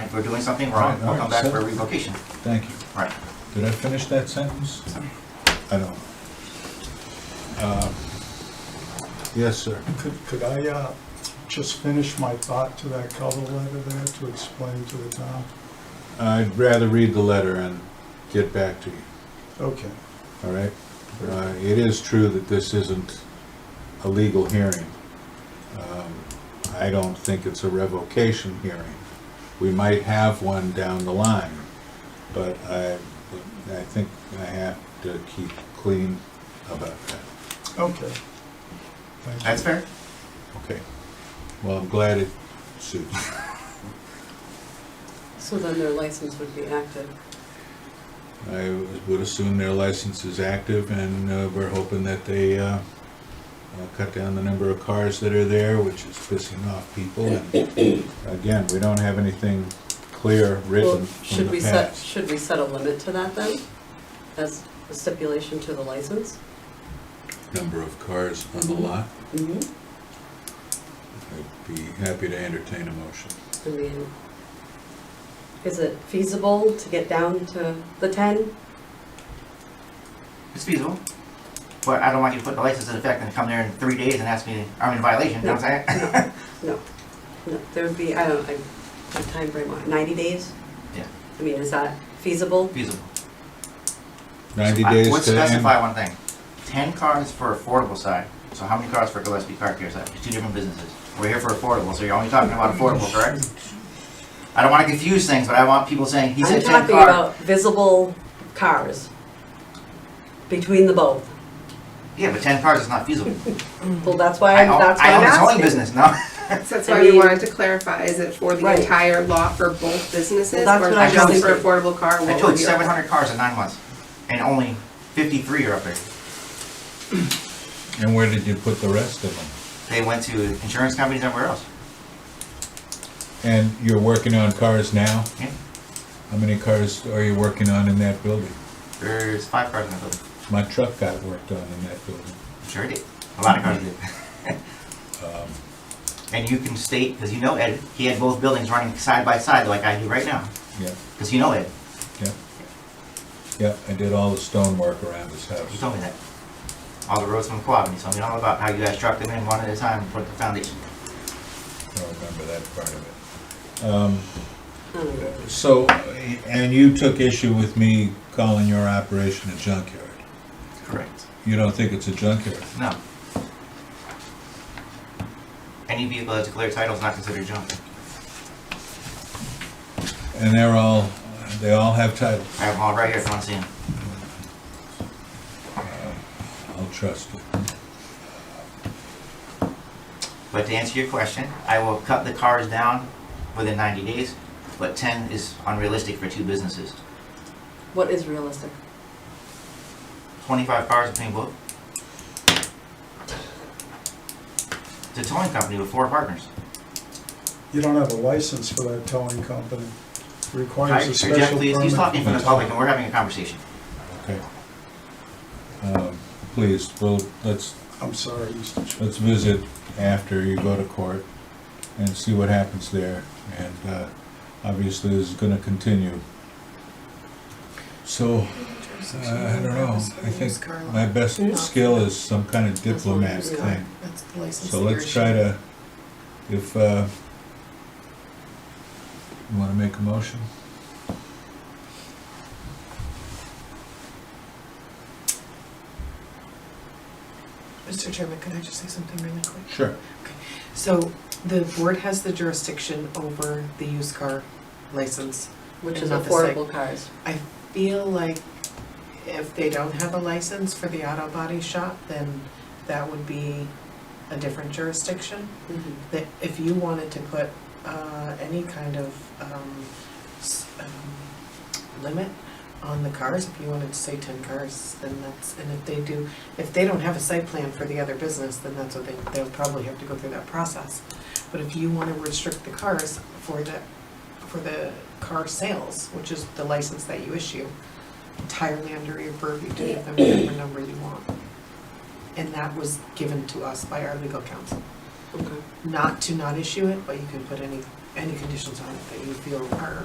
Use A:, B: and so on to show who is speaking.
A: if we're doing something wrong,
B: Right,
A: we'll come back
B: alright,
A: for a
B: so-
A: revocation.
B: Thank you.
A: Right.
B: Did I finish that sentence? I don't. know. Uh, Yes, sir.
C: Could, could I uh, just finish my thought to that cover letter there to explain to the town?
B: I'd rather read the letter and get back to you,
C: Okay,
B: all right? Uh, It is true that this isn't a legal hearing. Um, I don't think it's a revocation hearing. We might have one down the line, but I, I think I have to keep clean about that.
C: okay. Thank you.
A: That's fair?
B: Okay. Well, I'm glad it suits.
D: So then their license would be active.
B: I would assume their license is active, and uh, we're hoping that they uh, uh, cut down the number of cars that are there, which is pissing off people. And Again, we don't have anything clear
D: Well,
B: written from
D: Should
B: the
D: we set,
B: past.
D: should we set a limit to that then, as a stipulation to the license?
B: Number of cars on the lot,
D: Mm-hmm.
B: I'd be happy to entertain a motion.
D: I mean, is it feasible to get down to the ten?
A: It's feasible. But I don't want you to put the license in effect and come there in three days and ask me, I'm in violation, you know what I'm saying?
D: No, no, there would be, I don't, I, what timeframe, on it, ninety days?
A: Yeah.
D: I mean, is that feasible?
A: Feasible.
B: Ninety
A: I
B: days
A: would
B: to end.
A: specify one thing, ten cars for affordable side, so how many cars for Gillespie Car Care side, two different businesses. We're here for affordable, so you're only talking about affordable, correct? I don't wanna confuse things, but I want people saying, he said
D: I'm
A: ten
D: talking
A: car.
D: about visible cars between the both.
A: Yeah, but ten cars is not feasible.
E: Mm-hmm.
D: Well, that's why,
A: I
D: I'm-
A: own,
D: that's why
A: I
D: I'm
A: own a towing
D: asking.
A: business, no?
F: So that's
D: I
F: why we
D: mean-
F: wanted to clarify, is it for the
D: Right.
F: entire lot for both businesses?
D: Well, that's
F: or
D: what I
A: was
F: just for
D: thinking.
F: affordable car?
A: I
F: What
A: towed
F: would your-
A: seven hundred cars in nine months, and only fifty-three are up there.
B: And where did you put the rest of them?
A: They went to insurance companies everywhere else.
B: And you're working on cars now?
A: Yeah.
B: How many cars are you working on in that building?
A: There's five cars in the building.
B: My truck got worked on in that building.
A: Sure did. A lot of cars did. And you can state, because you know Ed, he had both buildings running side by side like I do right now,
B: Yeah.
A: because you know Ed,
B: Yep. Yep, I did all the stonework around his
A: he
B: house.
A: told me that. All the roads from the Quavon, he told me all about how you guys truck them in one at a time and put the foundation.
B: I don't remember that part of it. Um,
D: Mm.
B: So, and you took issue with me calling your operation a junkyard.
A: Correct.
B: You don't think it's a junkyard?
A: No. Any vehicle that's declared title is not considered junk.
B: And they're all, they all have titles.
A: I have them all right here if you want to see them.
B: I'll trust it.
A: But to answer your question, I will cut the cars down within 90 days, but 10 is unrealistic for two businesses.
D: What is realistic?
A: 25 cars between both. It's a towing company with four partners.
C: You don't have a license for that towing company. Requires
A: Hi,
C: a special
A: Jeff, please,
C: permit.
A: he's talking from the
B: Yes.
A: public and we're having a conversation.
B: Okay. Um, Please, well, let's,
C: I'm sorry, Mr. Chair.
B: let's visit after you go to court and see what happens there. And uh, obviously, this is gonna continue. So, uh, I don't know, I think my best skill is some kind of diplomat thing.
E: That's the license
B: So let's try to, if, uh, you wanna make a motion?
E: Mr. Chairman, can I just say something really quick?
B: Sure.
E: So the board has the jurisdiction over the used car license.
D: Which
E: And
D: is
E: not the site.
D: affordable cars.
E: I feel like if they don't have a license for the auto body shop, then that would be a different jurisdiction.
D: Mhm.
E: That if you wanted to put uh, any kind of um, s- um, limit on the cars, if you wanted to say ten cars, then that's, and if they do, if they don't have a site plan for the other business, then that's what they, they'll probably have to go through that process. But if you want to restrict the cars for the, for the car sales, which is the license that you issue, entirely under your purview to give them whatever number you want. And that was given to us by our legal counsel
D: Okay.
E: not to not issue it, but you can put any, any conditions on it that you feel are